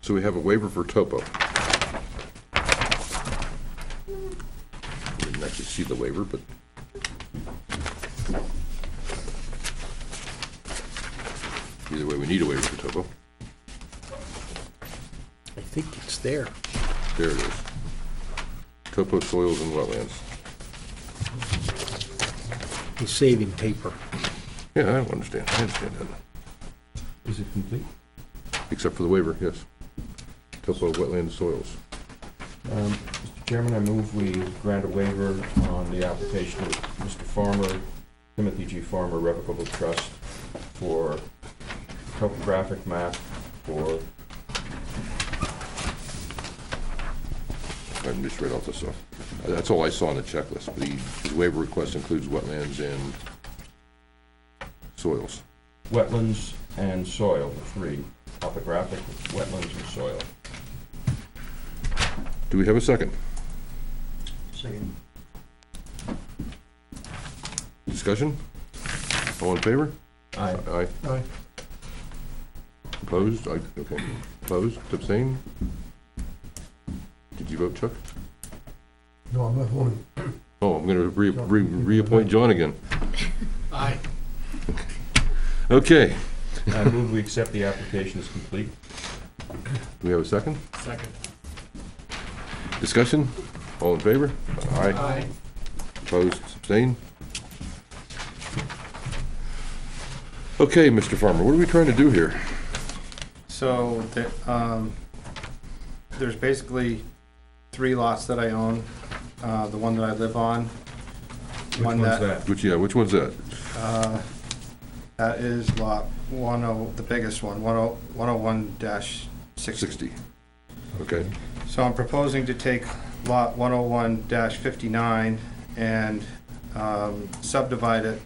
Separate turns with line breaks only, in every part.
So we have a waiver for topo. We Didn't actually see the waiver, but either way, we need a waiver for topo.
I think it's there.
There it is. Topo soils and wetlands.
He's saving paper.
Yeah, I don't understand. I understand that.
Is it complete?
Except for the waiver, yes. Topo wetland soils.
Mr. Um, Chairman, I move we grant a waiver on the application of Mr. Farmer, Timothy G. Farmer Revocable Trust for topographic map for,
I just read off the stuff. That's all I saw on the checklist. The his waiver request includes wetlands and soils.
wetlands and soil, the three, topographic, wetlands, and soil.
Do we have a second?
Second.
Discussion? All in favor?
I,
Aye.
Aye.
Opposed? Aye. Okay. Opposed? Abstained? Did you vote, Chuck?
No, I'm not voting.
Oh, I'm gonna re, re, reappoint John again.
Aye.
Okay.
I move we accept the application as complete.
Do we have a second?
Second.
Discussion? All in favor? Aye. Opposed? Abstained? Okay, Mr. Farmer, what are we trying to do here?
So, the, um, there's basically three lots that I own, uh, the one that I live on.
Which one's that?
Which, yeah, which one's that?
Uh, that is lot one oh, the biggest one, one oh, one oh one dash sixty.
60. Okay,
So I'm proposing to take lot one oh one fifty-nine and, um, subdivide it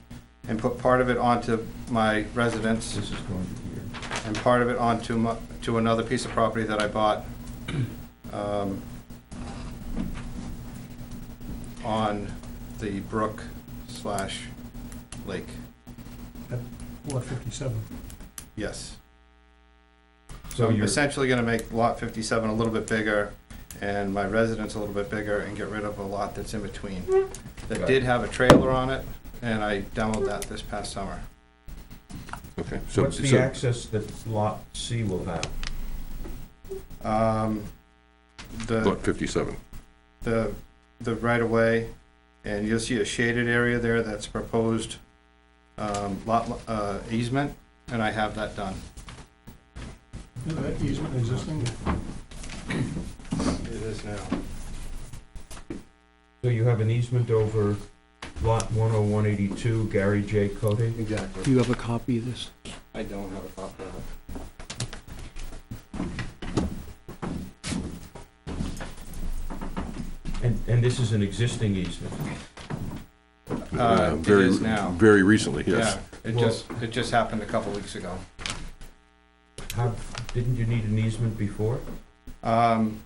and put part of it onto my residence
This is going to here.
and part of it onto my, to another piece of property that I bought, um, on the brook slash lake,
Lot fifty-seven.
yes. So
So
I'm
you're,
essentially gonna make lot fifty-seven a little bit bigger and my residence a little bit bigger and get rid of a lot that's in between. That
Right.
did have a trailer on it and I demoed that this past summer.
okay. So,
what's the
so
access that Lot C will have?
Um, the.
lot 57.
the, the right-of-way, and you'll see a shaded area there that's proposed um, lot uh, easement, and I have that done.
Is that easement existing?
It is now.
So you have an easement over Lot 10182, Gary J. Cote?
Do
Exactly.
you have a copy of this?
I don't have a copy of it.
And, and this is an existing easement?
Uh, it
Very-
is now.
Very recently, yes.
Yeah, it
Well-
just, it just happened a couple weeks ago.
How, didn't you need an easement before?
Um,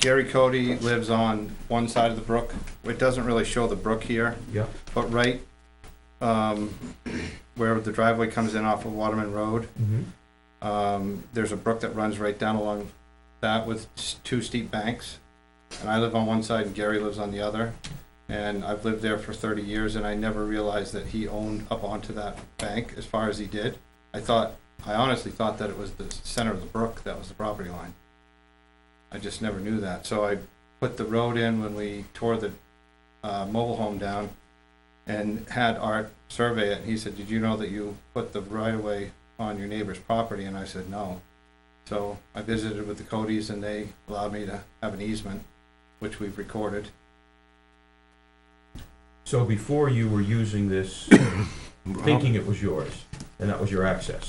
Gary Cody lives on one side of the brook. It doesn't really show the brook here.
Yeah.
But right um, where the driveway comes in off of Waterman Road,
Mm-hmm.
Um, there's a brook that runs right down along that with s- two steep banks. And I live on one side and Gary lives on the other. And I've lived there for thirty years and I never realized that he owned up onto that bank as far as he did. I thought, I honestly thought that it was the center of the brook that was the property line. I just never knew that. So I put the road in when we tore the, uh, mobile home down and had Art survey it. And he said, did you know that you put the right of way on your neighbor's property, and I said no. So I visited with the Codys, and they allowed me to have an easement, which we've recorded.
So before you were using this, thinking it was yours, and that was your access?